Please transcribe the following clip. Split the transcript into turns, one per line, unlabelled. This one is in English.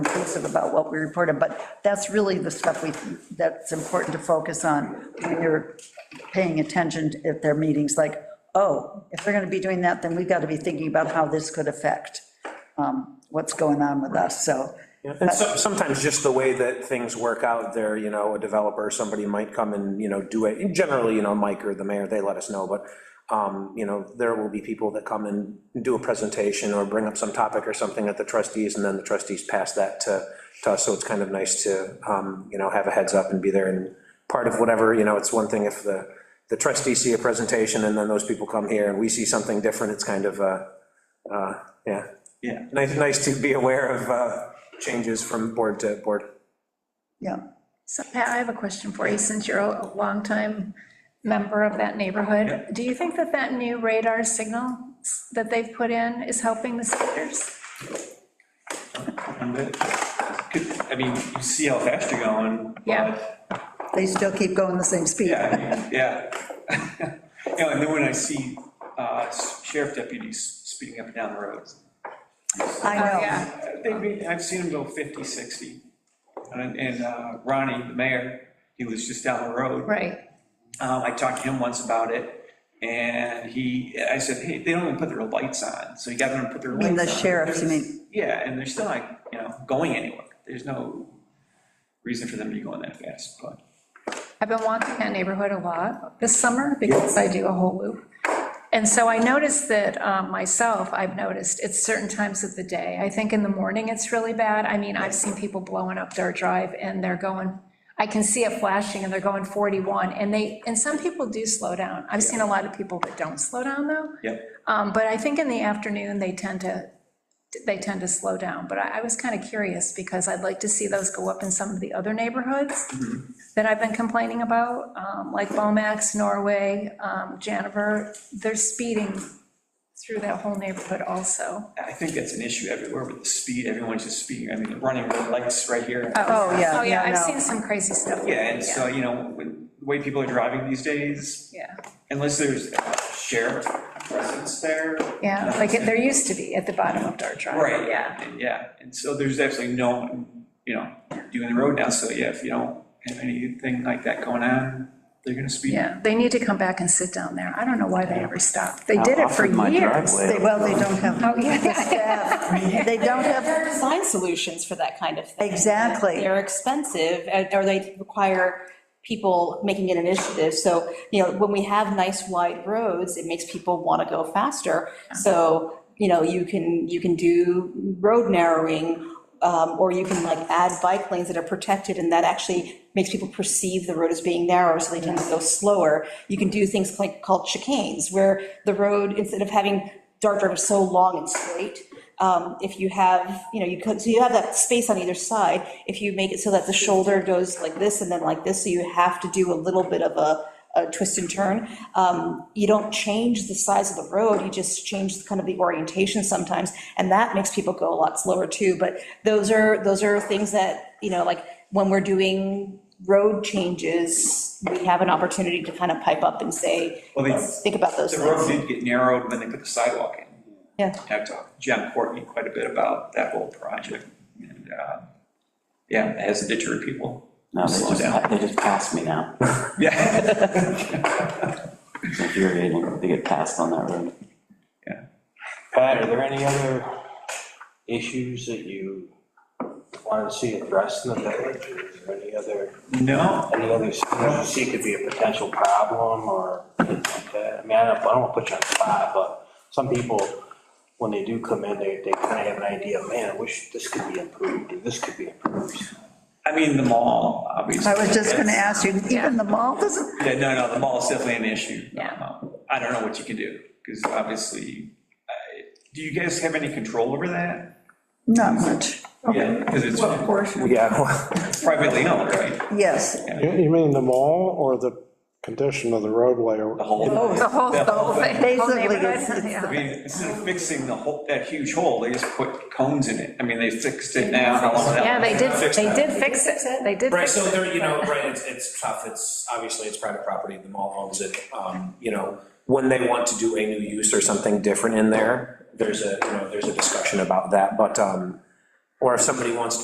explicit about what we reported, but that's really the stuff we, that's important to focus on when you're paying attention at their meetings, like, oh, if they're going to be doing that, then we've got to be thinking about how this could affect um, what's going on with us, so.
And so- sometimes just the way that things work out there, you know, a developer, somebody might come and, you know, do it, and generally, you know, Mike or the mayor, they let us know, but, um, you know, there will be people that come and do a presentation or bring up some topic or something at the trustees, and then the trustees pass that to, to us, so it's kind of nice to, um, you know, have a heads up and be there and part of whatever, you know, it's one thing if the, the trustees see a presentation and then those people come here and we see something different, it's kind of, uh, uh, yeah.
Yeah.
Nice, nice to be aware of uh, changes from board to board.
Yeah,
So Pat, I have a question for you, since you're a longtime member of that neighborhood. Do you think that that new radar signal that they've put in is helping the seniors?
And that- could- I mean, you see how fast you're going. but-
Yeah.
they still keep going the same speed.
Yeah, I mean, yeah. You know, and then when I see uh, sheriff deputies speeding up and down the roads,
I
Oh,
know.
yeah.
They, be- I've seen them go 50, 60. And and, uh, Ronnie, the mayor, he was just down the road.
Right,
Um, I talked to him once about it, and he, I said, hey, they don't even put their lights on, so you got them to put their lights
mean
on.
the sheriffs, you mean?
Yeah, and they're still not, you know, going anywhere. There's no reason for them to be going that fast, but.
I've been walking that neighborhood a lot this summer because I do a whole loop. And so I noticed that um, myself, I've noticed at certain times of the day. I think in the morning it's really bad. I mean, I've seen people blowing up their drive and they're going, I can see it flashing and they're going 41 and they, and some people do slow down. I've seen a lot of people that don't slow down though.
Yep.
Um, But I think in the afternoon, they tend to, they tend to slow down. But I I was kind of curious because I'd like to see those go up in some of the other neighborhoods
Mm-hmm.
that I've been complaining about, um, like Bomax, Norway, um, Janiver, they're speeding through that whole neighborhood also.
I think that's an issue everywhere with the speed, everyone's just speeding, I mean, running red lights right here.
Oh, yeah,
Oh, yeah,
yeah,
I've
no.
seen some crazy stuff.
Yeah, and so, you know, with the way people are driving these days,
Yeah,
unless there's a sheriff presence there. uh,
yeah, like it- there used to be at the bottom of Dart Drive.
Right.
Yeah,
and Yeah, and so there's absolutely no, one, you know, doing the road now, so yeah, if you don't have anything like that going on, they're gonna speed.
yeah, they need to come back and sit down there. I don't know why they ever stopped. They did it for
Offered my
years.
driveway.
They- Well, they don't have,
Oh, yeah.
they don't have,
There are design solutions for that kind of thing.
Exactly.
They're expensive, and- or they require people making an initiative. So, you know, when we have nice wide roads, it makes people want to go faster. So, you know, you can, you can do road narrowing, um, or you can like add bike lanes that are protected, and that actually makes people perceive the road as being narrower, so they tend to go slower. You can do things like called chicanes, where the road, instead of having dart drivers so long and straight, um, if you have, you know, you could, so you have that space on either side, if you make it so that the shoulder goes like this and then like this, so you have to do a little bit of a, a twist and turn, um, you don't change the size of the road, you just change kind of the orientation sometimes, and that makes people go a lot slower too, but those are, those are things that, you know, like, when we're doing road changes, we have an opportunity to kind of pipe up and say,
Well, they-
"Let's think about those
The
things.
road did get narrowed when they put the sidewalk in.
Yeah.
And I've talked to Jim Courtney quite a bit about that whole project, and, uh, yeah, it has a deterrent people.
No, they
Slow
just,
down.
they just passed me now.
Yeah.
It's infuriating to get passed on that road.
Pat, are there any other issues that you want to see addressed in the village? Is there any other,
No,
any other things you see could be a potential problem or anything like that? I mean, I don't, I don't want to put you on the spot, but some people, when they do come in, they, they kind of have an idea, man, I wish this could be improved, or this could be improved.
I mean, the mall, obviously.
I was just going to ask you,
Yeah.
even the mall doesn't,
Yeah, no, no, the mall is definitely an issue.
Yeah.
Um, I don't know what you can do, because obviously, I- do you guys have any control over that?
not much,
Yeah, because it's
Yeah.
privately owned, right?
yes.
You you mean the mall or the condition of the roadway? or-
The whole.
The whole, the whole thing. whole
Basically, it's-
neighborhood,
it's
yeah.
I mean, instead of fixing the whole, that huge hole, they just put cones in it. I mean, they fixed it now. how long that
Yeah, they did,
was-
they did fix it, they did
Right,
fix
so
it.
there, you know, right, it's, it's tough, it's, obviously, it's private property, the mall owns it, um, you know, when they want to do a new use or something different in there, there's a, you know, there's a discussion about that, but, um, or if somebody wants to